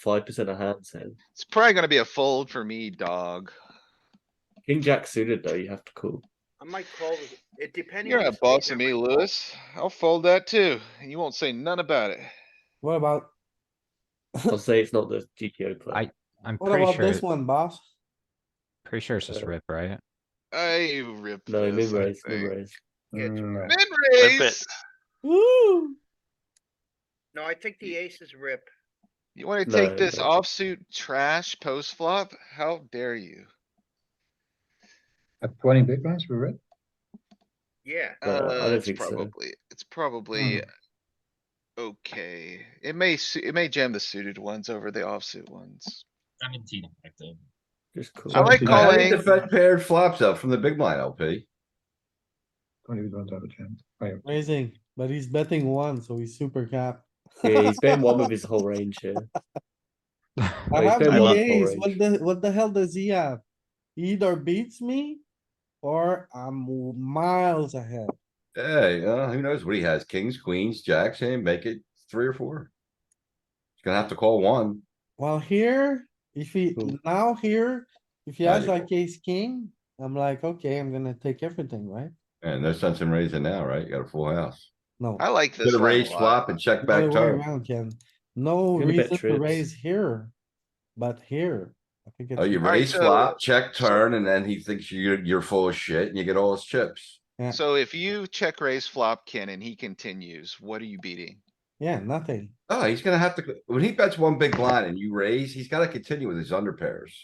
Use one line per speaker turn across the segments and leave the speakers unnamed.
five percent of hands then.
It's probably gonna be a fold for me, dog.
King Jack suited though, you have to call.
I might call it, it depending.
You're
on
a
the spade,
boss
I
of me,
might call.
Lewis. I'll fold that too. and You won't say none about it.
What about,
I'll say it's not the GTO play.
I- I'm
what
pretty
about
sure,
this one, Uh, boss?
pretty sure it's just a rip, right?
I rip
No,
this.
mid
I
raise, mid
think.
raise.
Mm,
Min
Rip it.
raise.
Woo!
No, I think the aces rip.
You wanna
No,
take this
no.
offsuit trash post flop? How dare you?
At twenty big blinds, we read.
Yeah,
No, I
Uh,
don't
it's
think so. Hmm.
probably, it's probably. Okay, it may, su- it may jam the suited ones over the offsuit ones.
Seventeen effective.
Just call.
I like
I think the
calling,
fed paired flops up from the big blind LP.
Twenty big blinds out of ten.
Raising, but he's betting one, so he's super cap.
Yeah, he's been one with his whole range here.
I
he's
have
been
the
one
ace,
for
what the, what the hell does he have? He Either beats me or I'm miles ahead.
Hey, uh, who knows what he has? Kings, queens, jacks, and make it three or four. He's gonna have to call one.
Well, here, if he,
Cool.
now here, if he has
Valuable.
like ace king, I'm like, okay, I'm gonna take everything, right?
And no sense in raising now, right? You got a full house.
No.
I like this.
Did a
line a
raise
lot.
flop and check
Other
back
way
turn.
around, Ken. No
Gonna bet
reason to
trips.
raise here, but here, I think
Oh, you
it's,
Alright,
raise
so-
flop, check turn, and then he thinks you're, you're full of shit and you get all his chips.
Yeah.
So if you check raise flop, Ken, and he continues, what are you beating?
yeah, nothing.
Oh, he's gonna have to, when he bets one big blind and you raise, he's gotta continue with his under pairs.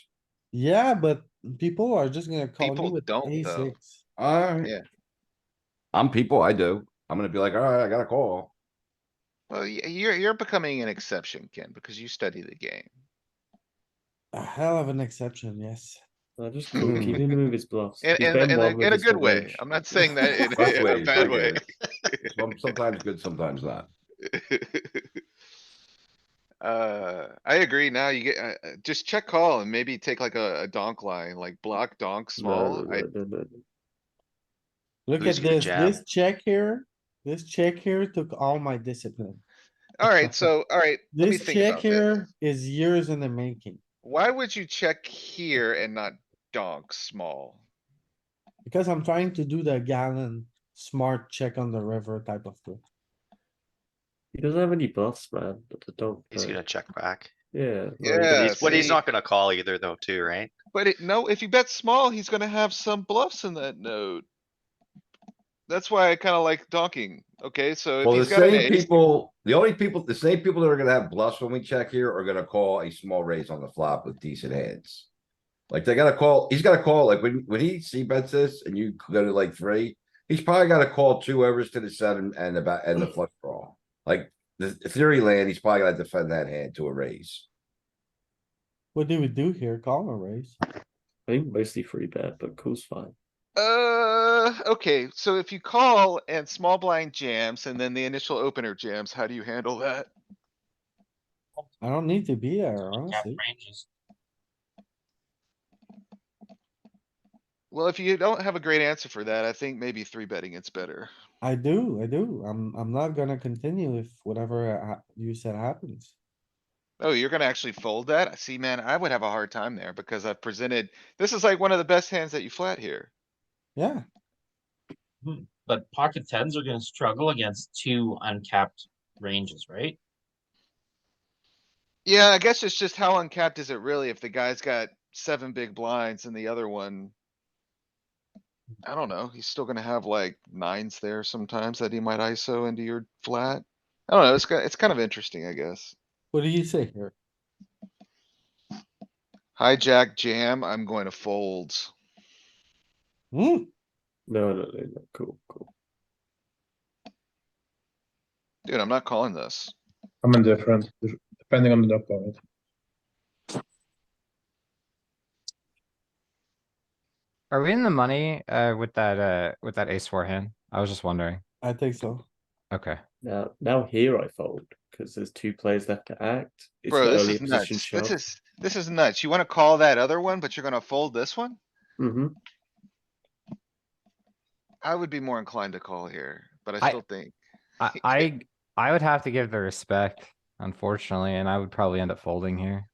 Yeah, but people are just gonna call
People
you with
don't,
ace
though.
six.
Alright.
Yeah.
I'm people, I do. I'm gonna be like, alright, I got a call.
Well, y- you're, you're becoming an exception, Ken, because you study the game.
A hell of an exception, yes.
I just call. Keep him with his bluffs.
In,
He's
in,
been
in
one
a,
with
in a
his whole
good way.
range.
I'm not saying that in
Both
a- in a
ways,
bad
I
way.
guess. Some- Sometimes good, sometimes not.
Uh, I agree. Now you get, uh, uh, just check call and maybe take like a, a donk line, like block donk
No, no,
small.
no,
I,
no, no, no.
Look
Who's
at
gonna
this,
jam?
this check here, this check here took all my discipline.
alright, so, alright, let me
This
think
check
about this.
here is years in the making,
Why would you check here and not donk small?
because I'm trying to do the gallon smart check on the river type of thing.
He doesn't have any bluffs, man. But the dog.
He's gonna check back.
Yeah. well,
Yeah.
But he's, but he's
see?
not gonna call either though, too, right?
But it, no, if you bet small, he's gonna have some bluffs in that node. That's why I kinda like donking, okay, so if
Well, the
he's got an
same
ace,
people, the only people, the same people that are gonna have bluffs when we check here are gonna call a small raise on the flop with decent hands. Like they gotta call, he's gotta call, like when, when he see bets this and you go to like three, he's probably gotta call two overs to the seven and about, and the flush draw. Like, the the theory land, he's probably gonna defend that hand to a raise.
What do we do here? Call or raise?
I think mostly free bet, but cool's fine.
uh, okay, so if you call and small blind jams and then the initial opener jams, how do you handle that?
I don't need to be there,
Cap
honestly.
ranges.
Well, if you don't have a great answer for that, I think maybe three betting it's better.
I do, I do. I'm, I'm not gonna continue if whatever uh, you said happens.
Oh, you're gonna actually fold that? See, man, I would have a hard time there because I've presented, this is like one of the best hands that you flat here.
Yeah,
But pocket tens are gonna struggle against two uncapped ranges, right?
Yeah, I guess it's just how uncapped is it really if the guy's got seven big blinds and the other one. I don't know, he's still gonna have like nines there sometimes that he might ISO into your flat. I don't know, it's, ki- it's kind of interesting, I guess.
what do you say here?
Hijack jam, I'm going to fold.
Hmm,
No, no, no, no. Cool, cool.
Dude, I'm not calling this.
I'm indifferent, de- depending on the opponent.
Are we in the money, uh, with that, uh, with that ace four hand? I was just wondering.
I think so.
Okay,
Now, now here I fold because there's two players left to act. It's
Bro,
an
this
early
is
position
nuts.
shove.
This is, this is nuts. You wanna call that other one, but you're gonna fold this one?
Mhm.
I would be more inclined to call here, but I
I-
still think.
I, I, I would have to give the respect unfortunately, and I would probably end up folding here.